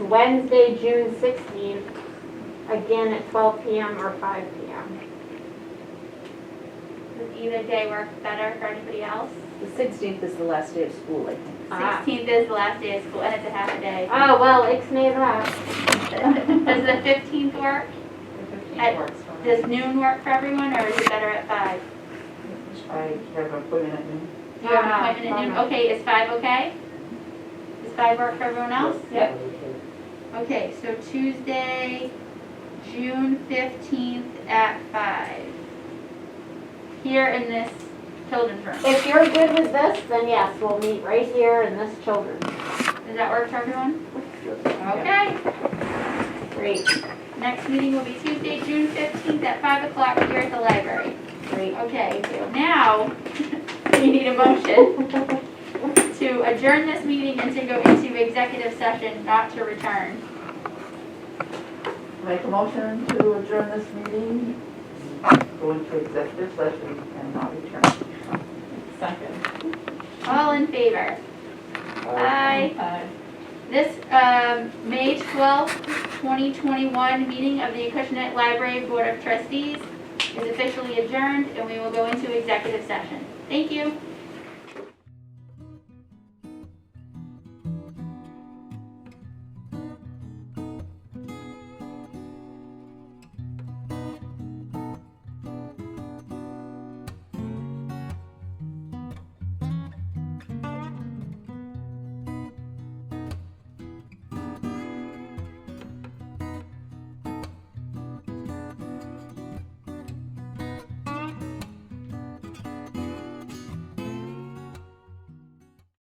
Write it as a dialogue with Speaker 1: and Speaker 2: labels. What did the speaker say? Speaker 1: Wednesday, June 16th, again at 12 PM or 5 PM.
Speaker 2: Does either day work better for anybody else?
Speaker 3: The 16th is the last day of school, I think.
Speaker 1: Ah.
Speaker 2: Sixteenth is the last day of school, and it's a half a day.
Speaker 1: Oh, well, ixnay that.
Speaker 2: Does the fifteenth work? At- Does noon work for everyone, or is it better at five?
Speaker 4: I have an appointment at noon.
Speaker 2: You have an
Speaker 1: Ah,
Speaker 2: appointment at noon,
Speaker 1: bummer.
Speaker 2: okay, is five okay? Does five work for everyone else?
Speaker 3: Yep.
Speaker 2: Okay, so Tuesday, June fifteenth at five. Here in this children's room.
Speaker 1: If you're good with this, then yes, we'll meet right here in this children's.
Speaker 2: Does that work for everyone?
Speaker 3: Yeah.
Speaker 2: Okay.
Speaker 1: Great,
Speaker 2: Next meeting will be Tuesday, June fifteenth at five o'clock here at the library.
Speaker 1: great.
Speaker 2: Okay, now, we need a motion to adjourn this meeting and to go into executive session, not to return.
Speaker 4: Make a motion to adjourn this meeting, go into executive session and not return. Second.
Speaker 2: All in favor? Aye.
Speaker 4: Aye.
Speaker 2: This, um, May twelfth, twenty twenty-one meeting of the Acushnet Library Board of Trustees is officially adjourned and we will go into executive session. Thank you.